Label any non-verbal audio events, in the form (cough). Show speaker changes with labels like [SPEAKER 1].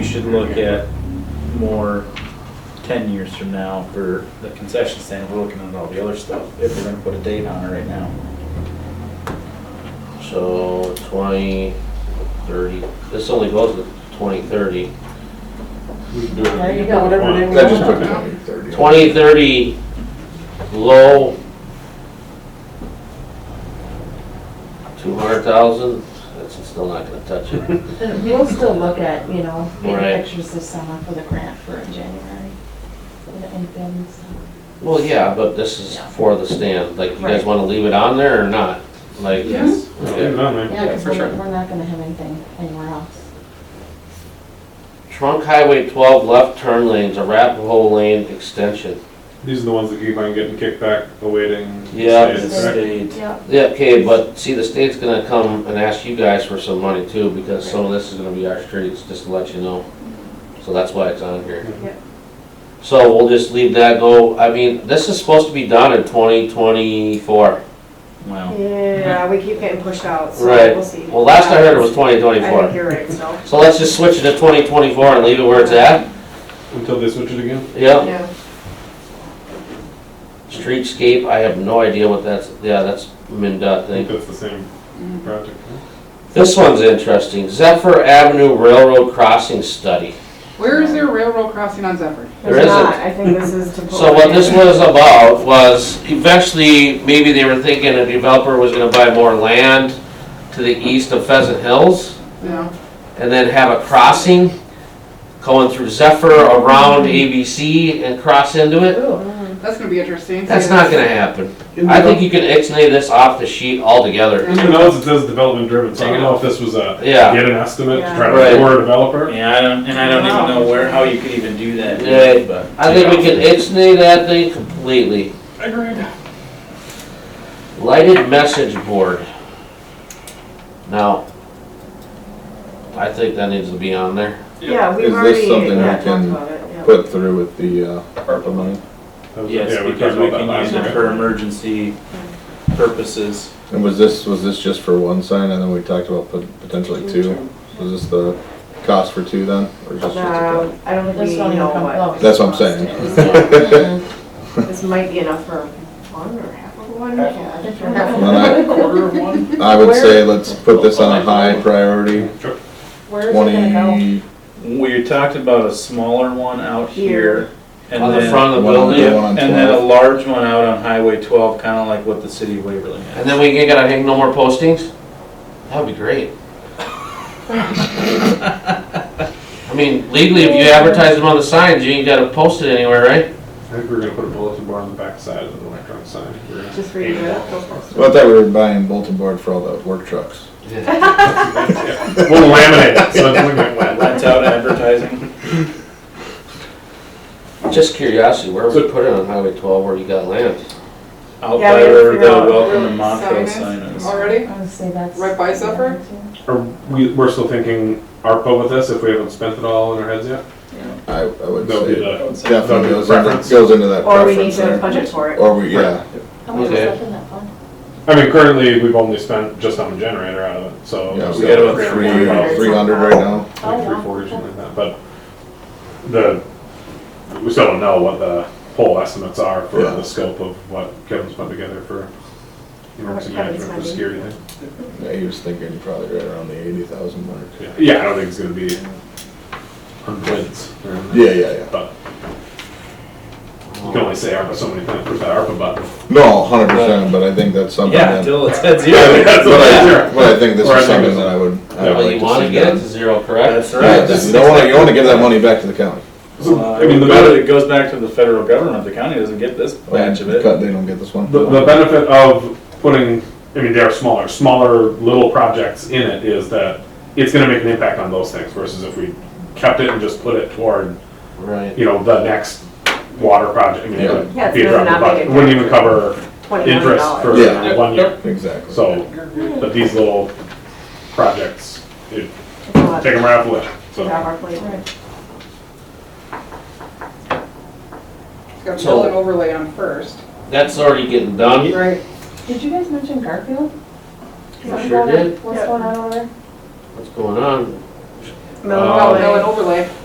[SPEAKER 1] should look at more ten years from now for the concession stand, we're looking at all the other stuff, if we're gonna put a date on it right now.
[SPEAKER 2] So twenty, thirty, this only goes to twenty, thirty.
[SPEAKER 3] We can do it.
[SPEAKER 4] There you go.
[SPEAKER 3] Whatever they
[SPEAKER 5] I just
[SPEAKER 3] want.
[SPEAKER 5] put twenty, thirty.
[SPEAKER 2] Twenty, thirty, low. Two hundred thousand, that's still not gonna touch it.
[SPEAKER 4] We'll still look at, you know, big
[SPEAKER 2] Right.
[SPEAKER 4] pictures this summer for the grant for in January. for the infant stuff.
[SPEAKER 2] Well, yeah, but this is for the stand, like, you guys
[SPEAKER 4] Right.
[SPEAKER 2] wanna leave it on there or not? Like,
[SPEAKER 1] Yes.
[SPEAKER 3] Leave it on there.
[SPEAKER 4] Yeah, because
[SPEAKER 1] for sure.
[SPEAKER 4] we're, we're not gonna have anything anywhere else.
[SPEAKER 2] trunk highway twelve left turn lanes, Arapahoe Lane extension.
[SPEAKER 3] These are the ones that keep on getting kicked back, awaiting.
[SPEAKER 2] Yeah.
[SPEAKER 3] status, correct?
[SPEAKER 1] State,
[SPEAKER 4] Yep.
[SPEAKER 2] Yeah, okay, but see, the state's gonna come and ask you guys for some money too, because some of this is gonna be our streets, just to let you know. So that's why it's on here.
[SPEAKER 4] Yep.
[SPEAKER 2] So we'll just leave that go, I mean, this is supposed to be done in twenty twenty-four.
[SPEAKER 1] wow.
[SPEAKER 6] Yeah, we keep getting pushed out, so
[SPEAKER 2] Right,
[SPEAKER 6] we'll see.
[SPEAKER 2] well, last I heard it was twenty
[SPEAKER 6] I think
[SPEAKER 2] twenty-four.
[SPEAKER 6] you're right, so.
[SPEAKER 2] So let's just switch it to twenty twenty-four and leave it where it's at,
[SPEAKER 3] Until they switch it again?
[SPEAKER 2] yep.
[SPEAKER 6] Yeah.
[SPEAKER 2] Streetscape, I have no idea what that's, yeah, that's MinDOT
[SPEAKER 3] I think
[SPEAKER 2] thing.
[SPEAKER 3] that's the same
[SPEAKER 4] Mm-hmm.
[SPEAKER 3] project. huh?
[SPEAKER 2] This one's interesting, Zephyr Avenue Railroad Crossing Study.
[SPEAKER 7] Where is there a railroad crossing on Zephyr?
[SPEAKER 2] There
[SPEAKER 6] There's
[SPEAKER 2] isn't.
[SPEAKER 6] not. I think this is to.
[SPEAKER 2] So what this was about was eventually, maybe they were thinking a developer was gonna buy more land to the east of Pheasant Hills
[SPEAKER 7] Yeah.
[SPEAKER 2] and then have a crossing going through Zephyr around ABC and cross into it.
[SPEAKER 7] That's gonna be interesting.
[SPEAKER 2] That's not gonna happen.
[SPEAKER 3] In
[SPEAKER 2] I
[SPEAKER 3] the-
[SPEAKER 2] think you can ixnay this off the sheet altogether.
[SPEAKER 3] In the notes, it says development driven, so I don't know if this was a,
[SPEAKER 2] Yeah.
[SPEAKER 3] get an estimate to try
[SPEAKER 2] Right.
[SPEAKER 3] to lure a developer.
[SPEAKER 1] Yeah, I don't, and I don't even know where, how you could even do that,
[SPEAKER 2] Yeah.
[SPEAKER 1] but.
[SPEAKER 2] I think we can ixnay that thing completely.
[SPEAKER 3] Agreed.
[SPEAKER 2] Lighted message board. Now, I think that needs to be on there.
[SPEAKER 6] Yeah,
[SPEAKER 5] Is
[SPEAKER 6] we've
[SPEAKER 5] this
[SPEAKER 6] already,
[SPEAKER 5] something we
[SPEAKER 6] yeah, talked
[SPEAKER 5] can
[SPEAKER 6] about it, yeah.
[SPEAKER 5] Put through with the uh, ARPA money,
[SPEAKER 3] That was-
[SPEAKER 1] Yes,
[SPEAKER 3] yeah, we
[SPEAKER 1] because
[SPEAKER 3] talked
[SPEAKER 1] we
[SPEAKER 3] about that
[SPEAKER 1] can use
[SPEAKER 3] last
[SPEAKER 1] it
[SPEAKER 3] year.
[SPEAKER 1] for emergency purposes.
[SPEAKER 5] and was this, was this just for one sign, and then we talked about pot- potentially two? Was this the cost for two then, or just? for
[SPEAKER 6] Um, I don't think
[SPEAKER 4] This
[SPEAKER 6] we
[SPEAKER 4] don't even
[SPEAKER 6] know
[SPEAKER 4] come
[SPEAKER 6] what.
[SPEAKER 4] close.
[SPEAKER 5] That's what I'm (laughs) saying.
[SPEAKER 4] Mm,
[SPEAKER 6] This might be enough for one or half of one.
[SPEAKER 4] if you're not-
[SPEAKER 5] Well, I-
[SPEAKER 7] Quarter of one?
[SPEAKER 5] two? I would say let's put this on a high priority,
[SPEAKER 3] Sure.
[SPEAKER 4] Where is it gonna
[SPEAKER 5] twenty,
[SPEAKER 1] We talked about a smaller one out here. and
[SPEAKER 2] On the
[SPEAKER 1] then-
[SPEAKER 2] front of the
[SPEAKER 5] One on the
[SPEAKER 2] building.
[SPEAKER 5] one on
[SPEAKER 1] And then a
[SPEAKER 5] twelve.
[SPEAKER 1] large one out on Highway twelve, kinda like what the city of Waverly has.
[SPEAKER 2] And then we ain't gotta hang no more postings? That would be great. I mean, legally, if you advertise them on the signs, you ain't gotta post it anywhere, right?
[SPEAKER 3] I think we were gonna put a bulletin board on the back side of the electronic sign. We were gonna-
[SPEAKER 6] Just read it up. go for it.
[SPEAKER 5] well, I thought we were buying bulletin board for all the work trucks.
[SPEAKER 3] We'll laminate it, so it's looking like wet.
[SPEAKER 1] Rent out advertising.
[SPEAKER 2] Just curiosity, where would we put it on Highway twelve where you got land?
[SPEAKER 1] Out
[SPEAKER 6] Yeah,
[SPEAKER 1] by
[SPEAKER 6] we have to
[SPEAKER 1] where the
[SPEAKER 6] figure out
[SPEAKER 1] welcome to
[SPEAKER 7] where
[SPEAKER 1] Montville
[SPEAKER 7] sign
[SPEAKER 1] sign is.
[SPEAKER 4] go?
[SPEAKER 7] Already?
[SPEAKER 4] I would say that's.
[SPEAKER 7] Right by Zephyr?
[SPEAKER 3] Are we, we're still thinking ARPA with this, if we haven't spent it all in our heads yet?
[SPEAKER 5] I, I would
[SPEAKER 3] That would be
[SPEAKER 5] say
[SPEAKER 3] the, That'd
[SPEAKER 5] definitely goes
[SPEAKER 3] be
[SPEAKER 5] into,
[SPEAKER 3] preference.
[SPEAKER 5] goes into that
[SPEAKER 6] Or we need
[SPEAKER 5] preference
[SPEAKER 6] to
[SPEAKER 5] there.
[SPEAKER 6] budget for it.
[SPEAKER 5] Or we, yeah,
[SPEAKER 4] How much is
[SPEAKER 2] Okay.
[SPEAKER 4] left in that fund?
[SPEAKER 3] I mean, currently, we've only spent just on the generator out of it, so.
[SPEAKER 5] yeah,
[SPEAKER 3] it's
[SPEAKER 5] we got
[SPEAKER 3] still
[SPEAKER 5] about
[SPEAKER 3] grand
[SPEAKER 5] three, uh,
[SPEAKER 3] one about
[SPEAKER 5] three hundred right now.
[SPEAKER 3] Like three, four or something like that, but the, we still don't know what the whole estimates are for
[SPEAKER 5] Yeah.
[SPEAKER 3] the scope of what Kevin's put together for emergency
[SPEAKER 6] What
[SPEAKER 3] management
[SPEAKER 6] Kevin's
[SPEAKER 3] for
[SPEAKER 6] funding.
[SPEAKER 3] security. thing.
[SPEAKER 5] Yeah, he was thinking probably right around the eighty thousand mark.
[SPEAKER 3] Yeah, Yeah, I don't think it's gonna be hundreds or anything.
[SPEAKER 5] Yeah, yeah, yeah.
[SPEAKER 3] But you can only say ARPA so many times, push that ARPA button.
[SPEAKER 5] No, hundred percent, but I think that's something
[SPEAKER 1] Yeah,
[SPEAKER 5] that,
[SPEAKER 1] until it's at
[SPEAKER 5] (laughs)
[SPEAKER 3] Yeah,
[SPEAKER 1] zero.
[SPEAKER 3] that's
[SPEAKER 5] but
[SPEAKER 3] what I-
[SPEAKER 5] I, but I think this
[SPEAKER 3] Or I
[SPEAKER 5] is
[SPEAKER 3] think
[SPEAKER 5] something
[SPEAKER 3] it's-
[SPEAKER 5] that I would, I would
[SPEAKER 2] Well,
[SPEAKER 5] like
[SPEAKER 2] you
[SPEAKER 5] to
[SPEAKER 2] wanna
[SPEAKER 5] see
[SPEAKER 2] get it
[SPEAKER 5] done.
[SPEAKER 2] to zero, correct?
[SPEAKER 1] That's
[SPEAKER 5] Yeah,
[SPEAKER 1] right. Uh,
[SPEAKER 5] just- you don't wanna, you wanna give that money back to the county.
[SPEAKER 3] So, I mean, the
[SPEAKER 1] But
[SPEAKER 3] better,
[SPEAKER 1] it goes back to the federal government, the county doesn't get this batch of it.
[SPEAKER 5] Cut, they don't get this one.
[SPEAKER 3] The, the benefit of putting, I mean, they are smaller, smaller little projects in it is that it's gonna make an impact on those things versus if we kept it and just put it toward,
[SPEAKER 2] Right.
[SPEAKER 3] you know, the next water project. I mean, it would
[SPEAKER 6] Yeah, it's
[SPEAKER 3] be a drop in the
[SPEAKER 6] gonna not make
[SPEAKER 3] bucket.
[SPEAKER 6] a
[SPEAKER 3] It Wouldn't even cover
[SPEAKER 6] Twenty million
[SPEAKER 3] interest
[SPEAKER 6] dollars.
[SPEAKER 3] for
[SPEAKER 5] Yeah.
[SPEAKER 3] one year.
[SPEAKER 5] Exactly.
[SPEAKER 3] So, but these little projects, it,
[SPEAKER 6] It's a lot
[SPEAKER 3] take them right off the list,
[SPEAKER 6] to have
[SPEAKER 3] so.
[SPEAKER 6] our plate.
[SPEAKER 7] Got to build an overlay on first.
[SPEAKER 2] That's already getting done.
[SPEAKER 6] Right.
[SPEAKER 4] Did you guys mention Garfield?
[SPEAKER 2] I sure did.
[SPEAKER 4] What's
[SPEAKER 6] Yeah.
[SPEAKER 4] going on over there?
[SPEAKER 2] What's going on?
[SPEAKER 6] Mill
[SPEAKER 3] Uh,
[SPEAKER 6] overlay.
[SPEAKER 7] Oh, no, an overlay.